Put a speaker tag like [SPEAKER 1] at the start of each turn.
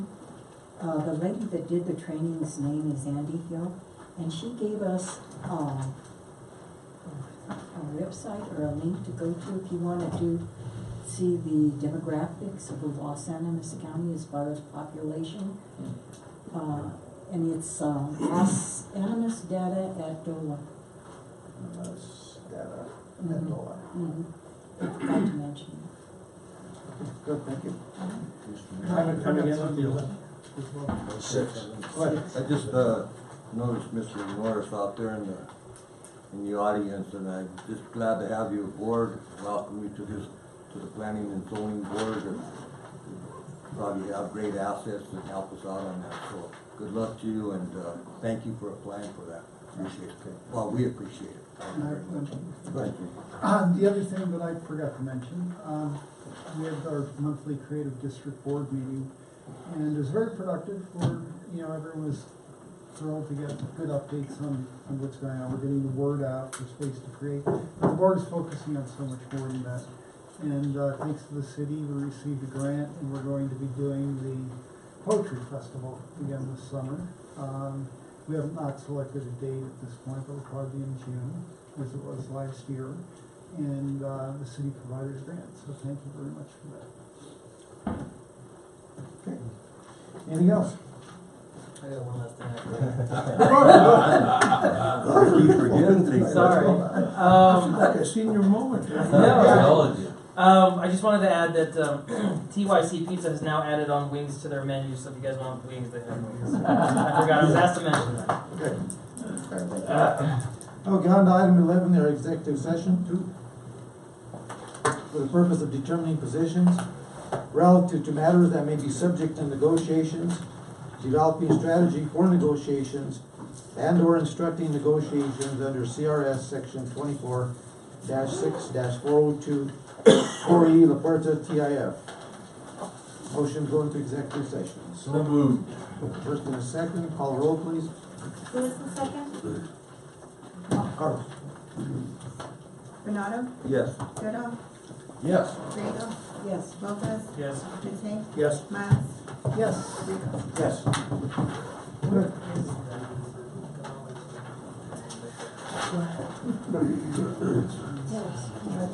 [SPEAKER 1] uh, the lady that did the training's name is Andy Hill, and she gave us, um, a website or a link to go to if you wanna do, see the demographics of the Los Animas County as far as population. Uh, and it's, uh, Los Animas data at DOLA.
[SPEAKER 2] Most data
[SPEAKER 1] Mhm.
[SPEAKER 2] and dollar.
[SPEAKER 1] Mhm. Forgot to mention.
[SPEAKER 2] Good, thank you.
[SPEAKER 3] Comment coming in on the eleventh?
[SPEAKER 4] Six.
[SPEAKER 3] Right.
[SPEAKER 4] I just, uh, noticed Mr. Norris out there in the, in the audience, and I'm just glad to have you aboard. Welcome you to this, to the planning and zoning board, and probably have great assets and help us out on that, so good luck to you, and, uh, thank you for applying for that. Appreciate it. Well, we appreciate it. Thank you very much. Thank you.
[SPEAKER 5] Um, the other thing that I forgot to mention, um, we had our monthly creative district board meeting, and it was very productive, where, you know, everyone was thrilled to get good updates on, on what's going on, we're getting the word out for space to create. The board is focusing on so much more than that, and, uh, thanks to the city, we received a grant, and we're going to be doing the poetry festival again this summer. Um, we have not selected a date at this point, but it'll probably be in June, as it was last year and uh, the city providers grant, so thank you very much for that.
[SPEAKER 2] Anything else?
[SPEAKER 3] I got one last thing I forgot.
[SPEAKER 4] Keep forgetting things.
[SPEAKER 3] Sorry.
[SPEAKER 2] It's
[SPEAKER 3] Um,
[SPEAKER 2] Like a senior moment.
[SPEAKER 3] no, um, I just wanted to add that, um, TYC Pizza has now added on wings to their menu, so if you guys want wings, they have wings. I forgot, I was asked to mention that.
[SPEAKER 2] Good. Okay, thank you. Okay, on to item eleven, there executive session two. For the purpose of determining positions relative to matters that may be subject to negotiations, developing strategy for negotiations, and/or instructing negotiations under CRS section twenty-four six four oh two, four E, La Puerta, TIF. Motion going to executive session.
[SPEAKER 4] So moved.
[SPEAKER 2] First and a second, call roll please.
[SPEAKER 6] Who was the second?
[SPEAKER 2] Carlos.
[SPEAKER 6] Renato,
[SPEAKER 4] Yes.
[SPEAKER 6] Goodall,
[SPEAKER 4] Yes.
[SPEAKER 6] Grego,
[SPEAKER 1] Yes,
[SPEAKER 6] Lopez,
[SPEAKER 3] Yes.
[SPEAKER 6] Matei,
[SPEAKER 2] Yes.
[SPEAKER 6] Miles.
[SPEAKER 2] Yes. Yes. Good.
[SPEAKER 1] yes.